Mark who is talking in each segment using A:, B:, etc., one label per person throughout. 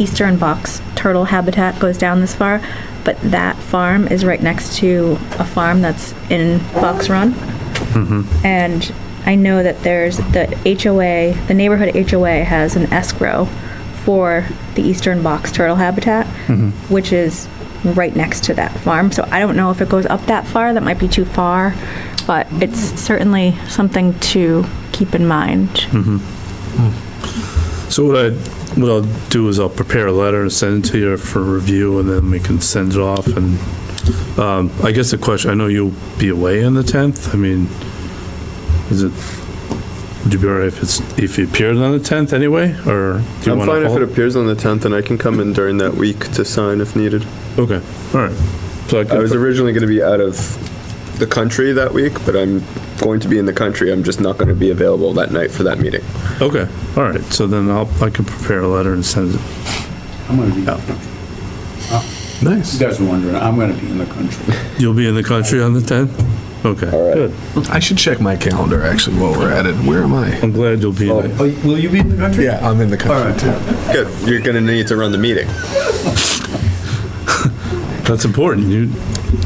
A: eastern box turtle habitat goes down this far, but that farm is right next to a farm that's in Fox Run. And I know that there's the HOA, the neighborhood HOA has an escrow for the eastern box turtle habitat, which is right next to that farm. So I don't know if it goes up that far, that might be too far, but it's certainly something to keep in mind.
B: So what I, what I'll do is I'll prepare a letter and send it to you for review, and then we can send it off, and, um, I guess the question, I know you'll be away on the 10th, I mean, is it, would you be all right if it's, if you appeared on the 10th anyway, or do you
C: I'm
B: want
C: fine
B: to
C: if
B: hold?
C: it appears on the 10th, and I can come in during that week to sign if needed.
B: Okay, all right. So I
C: I was
B: could,
C: originally going to be out of the country that week, but I'm going to be in the country. I'm just not going to be available that night for that meeting.
B: okay, all right, so then I'll, I can prepare a letter and send it.
D: I'm gonna be in the
B: Yeah.
D: country. You
B: Nice.
D: guys are wondering, I'm gonna be in the country.
B: You'll be in the country on the 10th? Okay.
C: All right.
B: Good.
E: I should check my calendar actually while we're at it. Where am I?
B: I'm glad you'll be there.
D: Oh, Will you be in the country?
E: Yeah, I'm in the
D: All
E: country
D: right.
E: too.
C: Good. You're going to need to run the meeting.
B: That's important. You,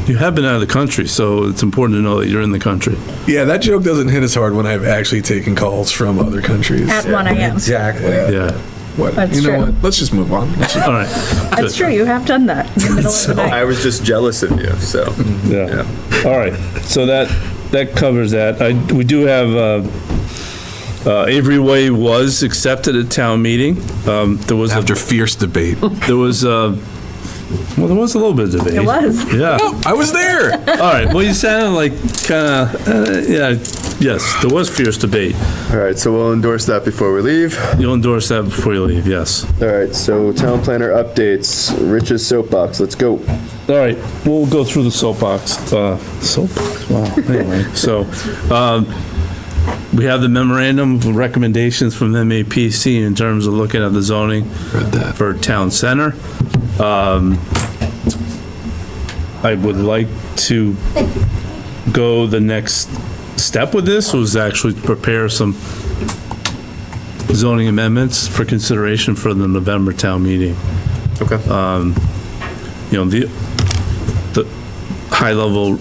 B: you have been out of the country, so it's important to know that you're in the country.
E: Yeah, that joke doesn't hit as hard when I've actually taken calls from other countries.
A: At 1 a.m.
E: Exactly.
B: Yeah.
E: What?
A: That's
E: you know
A: true.
E: what? Let's just move on. Let's just-
B: All right.
A: That's true, you have done that in the middle of the night.
C: I was just jealous of you, so.
B: Yeah. All right. So that, that covers that. I, we do have, uh, uh, Avery Way was accepted at town meeting. Um, there was, a-
E: After fierce debate.
B: there was, uh, well, there was a little bit of debate.
A: It was.
B: Yeah.
E: I was there.
B: All right. Well, you sounded like kinda, uh, yeah, yes, there was fierce debate.
C: All right, so we'll endorse that before we leave.
B: You'll endorse that before you leave, yes.
C: All right, so town planner updates, Rich's soapbox, let's go.
B: All right, we'll go through the soapbox. Uh, Soapbox, wow. Anyway, So, um, we have the memorandum of recommendations from MAPC in terms of looking at the zoning
E: Read that.
B: for town center. Um, I would like to go the next step with this, was actually to prepare some zoning amendments for consideration for the November town meeting Um,
C: Okay.
B: you know, the, the high-level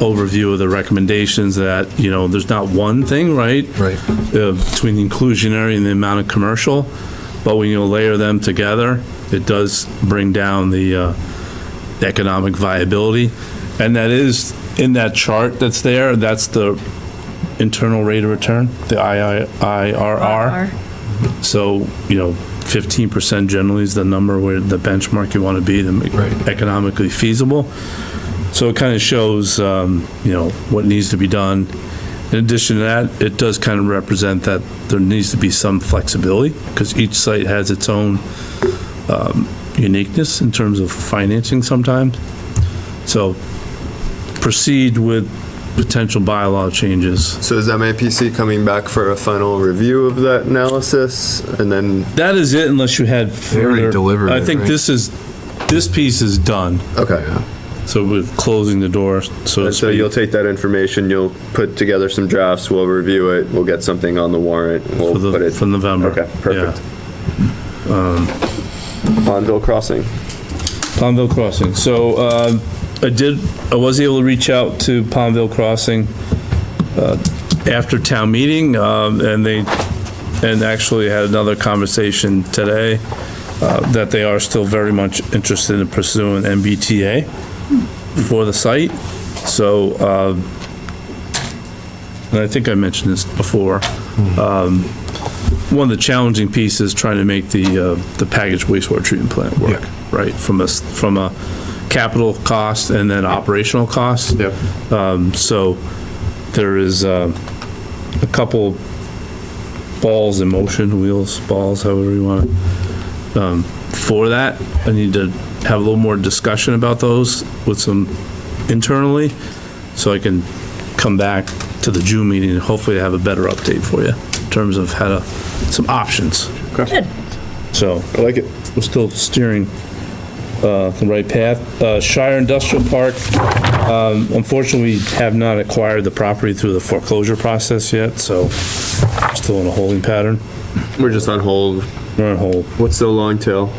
B: overview of the recommendations that, you know, there's not one thing, right?
E: Right.
B: Uh, Between the inclusionary and the amount of commercial, but when you layer them together, it does bring down the uh, economic viability. And that is, in that chart that's there, that's the internal rate of return, the IRR. So, you know, fifteen percent generally is the number where the benchmark you want to be to make
E: Right.
B: economically feasible. So it kind of shows, um, you know, what needs to be done. In addition to that, it does kind of represent that there needs to be some flexibility because each site has its own um, uniqueness in terms of financing sometimes. So proceed with potential bylaw changes.
C: So is MAPC coming back for a final review of that analysis? And then,
B: That is it unless you had
E: already
B: further.
E: delivered
B: I
E: it,
B: think
E: right?
B: this is, this piece is done,
C: okay.
B: so we're closing the door, so to
C: And so you'll
B: speak,
C: take that information, you'll put together some drafts, we'll review it, we'll get something on the warrant, we'll
B: for
C: put
B: the,
C: it.
B: for November.
C: Okay, perfect.
B: Yeah.
C: Pondville Crossing.
B: Palmville Crossing, so, um, I did, I was able to reach out to Palmville Crossing, uh, after town meeting, um, and they, and actually had another conversation today, uh, that they are still very much interested in pursuing MBTA for the site, so, um, and I think I mentioned this before, um, one of the challenging pieces is trying to make the, uh, the packaged wastewater treatment plant work,
E: Yeah.
B: right? From a, s- from a capital cost and then operational cost.
C: Yep.
B: Um, so there is, uh, a couple balls in motion, wheels, balls, however you want, um, for that. I need to have a little more discussion about those with some internally, so I can come back to the June meeting and hopefully have a better update for you in terms of how to, some options.
A: Good.
B: So
C: I like it.
B: we're still steering uh, the right path. Uh, Shire Industrial Park, um, unfortunately, we have not acquired the property through the foreclosure process yet, so still in a holding pattern.
C: We're just on hold.
B: We're on hold.
C: What's the long tail?